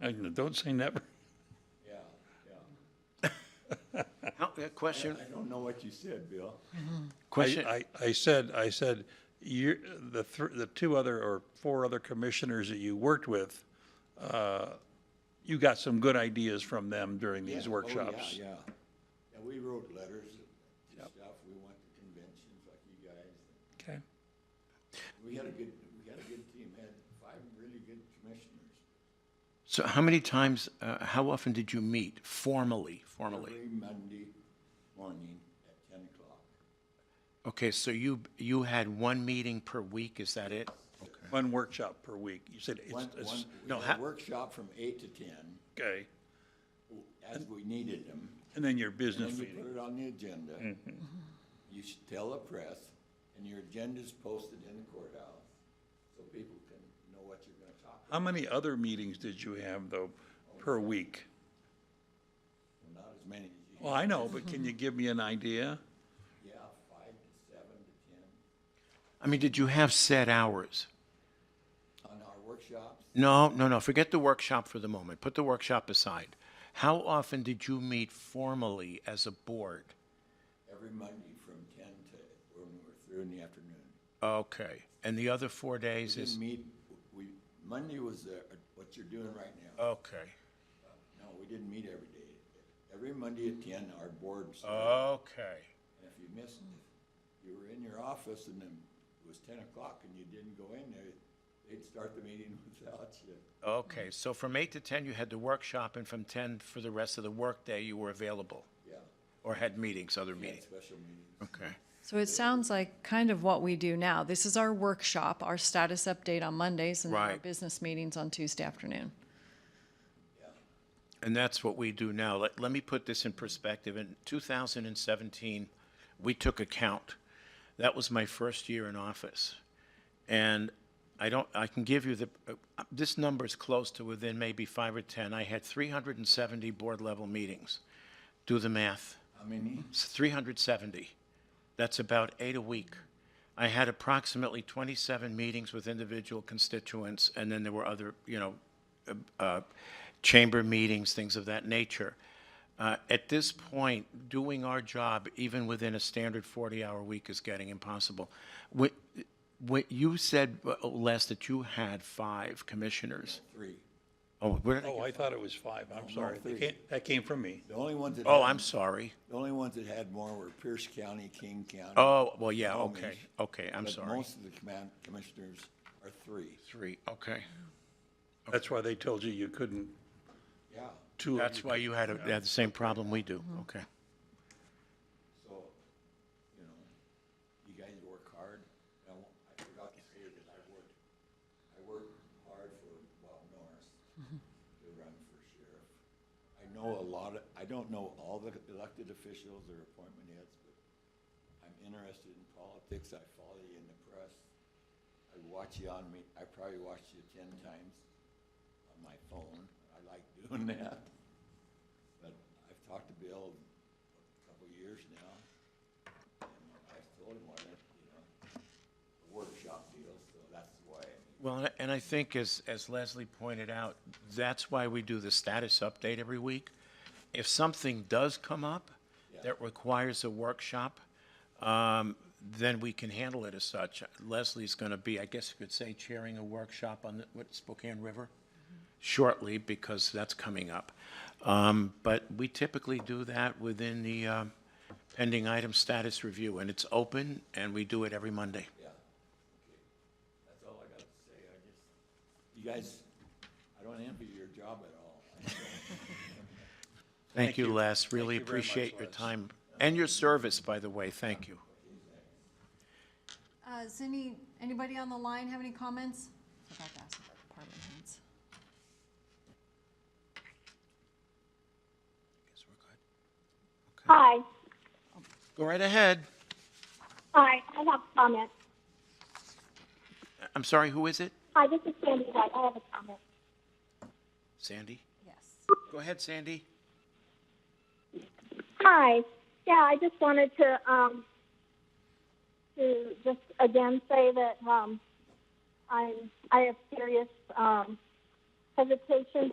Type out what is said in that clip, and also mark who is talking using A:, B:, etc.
A: And Don't say never.
B: Yeah, yeah.
C: How- uh, Question,
B: I don't know what you said, Bill.
C: question,
A: I, I, I said, I said, you, the, thr- the two other or four other commissioners that you worked with, uh, you got some good ideas from them during
B: Yeah, oh,
A: these
B: yeah,
A: workshops.
B: Yeah, yeah, we wrote letters and stuff, we went to conventions like you guys.
A: Okay,
B: We had a good, we had a good team, had five really good commissioners.
C: so how many times, uh, how often did you meet formally, formally?
B: Every Monday morning at ten o'clock.
C: Okay, so you, you had one meeting per week, is that it?
A: one workshop per week. You said it's,
B: One, one,
A: it's,
B: we
C: no,
B: had
C: ha-
B: a workshop from eight to ten,
A: okay.
B: as we needed them.
A: And then your business
B: And then you
A: meeting.
B: put it on the agenda. You should tell the press, and your agenda's posted in the courthouse, so people can know what you're gonna talk about.
A: How many other meetings did you have though, per week?
B: Not as many as you.
A: Well, I know, but can you give me an idea?
B: Yeah, five to seven to ten
C: I mean, did you have set hours?
B: on our workshops.
C: No, no, no, forget the workshop for the moment, put the workshop aside. How often did you meet formally as a board?
B: every Monday from ten to, when we're through in the afternoon.
C: Okay, and the other four days
B: Didn't
C: is,
B: meet, we, Monday was the, what you're doing right
C: Uh.
B: now.
C: okay,
B: No, we didn't meet every day. Every Monday at ten, our boards,
C: Uh.
B: and
C: okay.
B: if you missed, if you were in your office and then it was ten o'clock and you didn't go in there, they'd start the meeting without you.
C: Okay, so from eight to ten, you had the workshop, and from ten for the rest of the workday, you were available
B: Yeah,
C: or had meetings, other
B: we had
C: meetings.
B: special meetings.
C: Okay.
D: So it sounds like kind of what we do now. This is our workshop, our status update on Mondays, and then our
C: Right.
D: business meetings on Tuesday afternoon.
C: And that's what we do now. Let, let me put this in perspective. In 2017, we took account. That was my first year in office. And I don't, I can give you the, uh, this number is close to within maybe five or 10. I had 370 board level meetings. Do the math.
B: How many?
C: It's 370. That's about eight a week. I had approximately 27 meetings with individual constituents, and then there were other, you know, uh, uh, chamber meetings, things of that nature. Uh, At this point, doing our job, even within a standard 40-hour week, is getting impossible. What, what you said, uh, Les, that you had five commissioners.
B: Three.
C: Oh, where did I
A: Oh,
C: get-
A: I thought it was five. I'm sorry. That
B: three.
A: came, that came from me.
B: The only ones that.
C: oh,
B: had-
C: I'm sorry.
B: The only ones that had more were Pierce County, King County.
C: Oh, well, yeah,
B: Homage.
C: okay, okay, I'm
B: But
C: sorry.
B: Most of the command, commissioners are three.
C: Three, okay.
A: That's why they told you you couldn't,
B: Yeah,
A: two of you Mm-hmm.
C: That's why you had, a- had the same problem we do, okay.
B: so, you know, you guys work hard. I won't- I forgot to say that I worked, I worked hard for Bob Norris to run for sheriff. I know a lot of, I don't know all the elected officials or appointment heads, but I'm interested in politics. I follow you in the press. I watch you on me, I probably watched you ten times on my phone. I like doing that. But I've talked to Bill a couple of years now. And I've told him what, it- you know, the workshop deal, so that's why.
C: Well, and I- and I think as, as Leslie pointed out, that's why we do the status update every week. If something does come up that requires a workshop, um, then we can handle it as such. Leslie's gonna be, I guess you could say, chairing a workshop on the, what, Spokane River? Shortly, because that's coming up. Um, but we typically do that within the, um, pending item status review, and it's open, and we do it every Monday.
B: Yeah, okay. That's all I got to say. I just, you guys, I don't envy your job at all.
C: Thank you, Les. Really
A: Thank you very much,
C: appreciate your
A: Les.
C: time and your service, by the way. Thank you.
D: Uh, does any, anybody on the line have any comments? Forgot to ask about department heads.
E: Hi,
C: Go right ahead.
E: hi, I have a comment.
C: I'm sorry, who is it?
E: Hi, this is Sandy White, I have a comment.
C: Sandy?
D: Yes.
C: Go ahead, Sandy.
E: Hi, yeah, I just wanted to, um, to just again say that, um, I'm, I have serious, um, hesitation